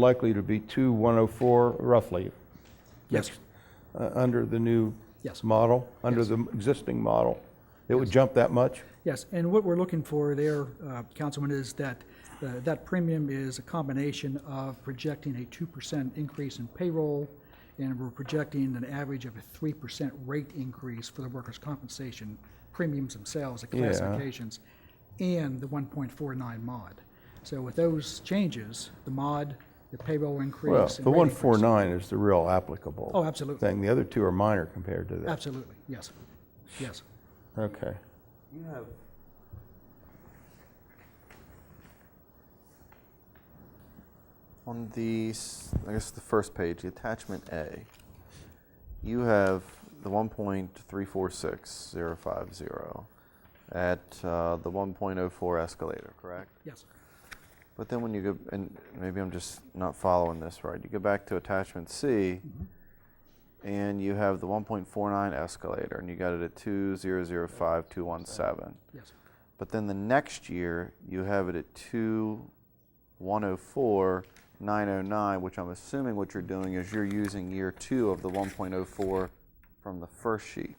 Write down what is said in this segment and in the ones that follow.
likely to be two 104 roughly, Yes, uh, under the new Yes. model, under the existing model. It would jump that much? yes. And what we're looking for there, uh, Councilman, is that, uh, that premium is a combination of projecting a 2% increase in payroll, and we're projecting an average of a 3% rate increase for the workers' compensation premiums themselves, the Yeah. classifications, and the 1.49 mod. So with those changes, the mod, the payroll increase. Well, and the rate increase- 149 is the real applicable. Oh, absolutely. Thing, the other two are minor compared to that. Absolutely, yes, yes. Okay. You have. On the, s- I guess the first page, the attachment A, you have the one point three four six zero five zero at uh, the one point oh four escalator, correct? Yes. But then when you go, and maybe I'm just not following this right, you go back to attachment C, and you have the one point four nine escalator, and you got it at two zero zero five two one seven. Yes. But then the next year, you have it at oh 2, 104, 909, which I'm assuming what you're doing is you're using year two of the 1.04 from the first sheet,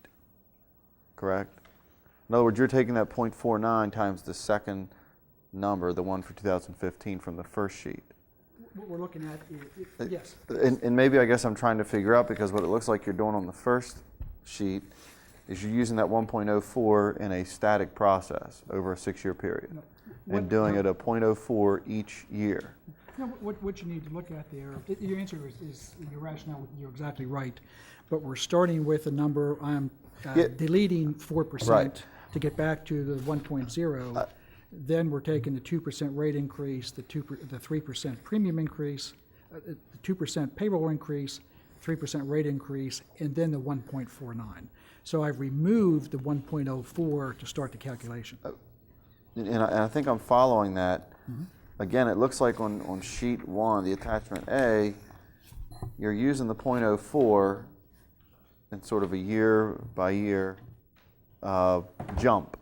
correct? In other words, you're taking that 0.49 times the second number, the one for 2015 from the first sheet. What we're looking at, i- i- yes, And, and maybe I guess I'm trying to figure out because what it looks like you're doing on the first sheet is you're using that 1.04 in a static process over a six-year period and doing it a 0.04 each year. No, wh- what, what you need to look at there, i- your answer is, is your rationale, you're exactly right, but we're starting with a number, I'm uh, Yeah. deleting four Right. Uh, percent to get back to the one point zero, then we're taking the two percent rate increase, the two, per- the three percent premium increase, uh, uh, the two percent payroll increase, three percent rate increase, and then the one point four nine. So I've removed the one point oh four to start the Uh, calculation. And and I, and I think I'm following that. Again, it looks like on, on sheet one, the attachment A, you're using the 0.04 in sort of a year by year uh, jump.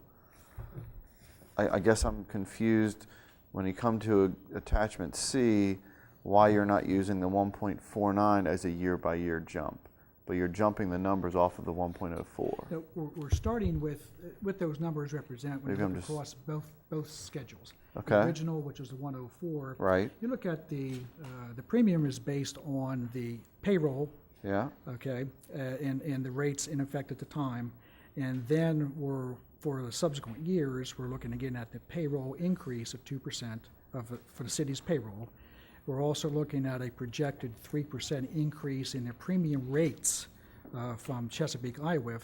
I, I guess I'm confused when you come to a, attachment C, why you're not using the 1.49 as a year by year jump, but you're jumping the numbers off of the 1.04. No, we're, we're starting with, uh, what those numbers represent when you Maybe I'm look just- across both, both schedules. Okay. The original, which is the 104. Right. You look at the, uh, the premium is based on the payroll, Yeah? okay, uh, and, and the rates in effect at the time. And then we're, for the subsequent years, we're looking again at the payroll increase of 2% of, the- for the city's payroll. We're also looking at a projected 3% increase in the premium rates uh, from Chesapeake IWIF,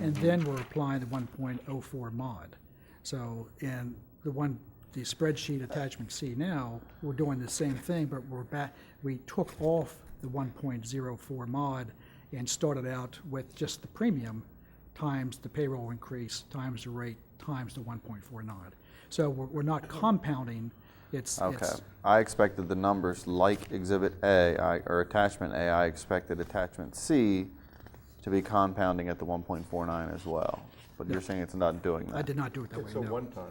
and then we're applying the 1.04 mod. So, and the one, the spreadsheet attachment C now, we're doing the same thing, but we're back, we took off the 1.04 mod and started out with just the premium times the payroll increase, times the rate, times the 1.49. So we're, we're not compounding, it's, Okay. it's, I expected the numbers like Exhibit A, I, or Attachment A, I expected Attachment C to be compounding at the 1.49 as well. But you're saying it's not doing I that. did not do it that way, no. time,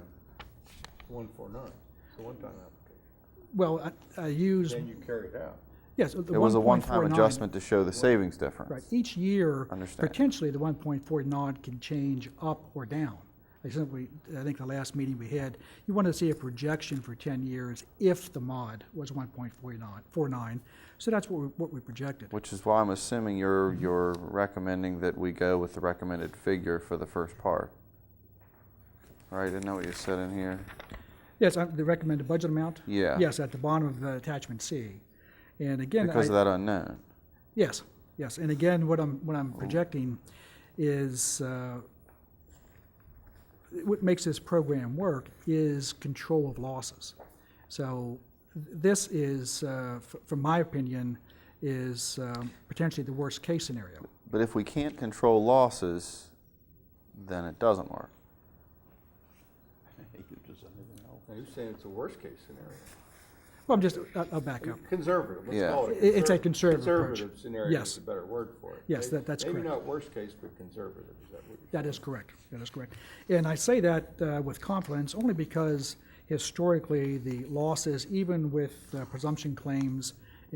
149, it's a one-time application. Well, I, I used, you carry it out. yes, the 1.49. It was a one-time adjustment to show the savings difference. Right, each year, Understand. potentially, the 1.4 nod can change up or down. I simply, I think the last meeting we had, you wanted to see a projection for 10 years if the mod was 1.49, so that's what we, what we projected. Which is why I'm assuming you're, Mm-hmm. you're recommending that we go with the recommended figure for the first part. Right, isn't that what you said in here? Yes, I- the recommended budget amount? Yeah. Yes, at the bottom of the attachment C. And again, I. Because of that unknown. Yes, yes, and again, what I'm, what I'm projecting is, uh, what makes this program work is control of losses. So th- this is, uh, f- from my opinion, is um, potentially the worst-case scenario. But if we can't control losses, then it doesn't work. You're saying it's a worst-case scenario. Well, I'm just, I'll I'll back up. Conservative, let's Yeah. call it a It- it's a conservative- conservative approach. Conservative conservative scenario scenario is is Yes. a a better word for it. Yes, May- that- that's maybe Maybe correct. not not worst case, but conservative, is that what you're That is correct. That is correct. And I say that uh, with confidence only because historically, the losses, even with uh, presumption claims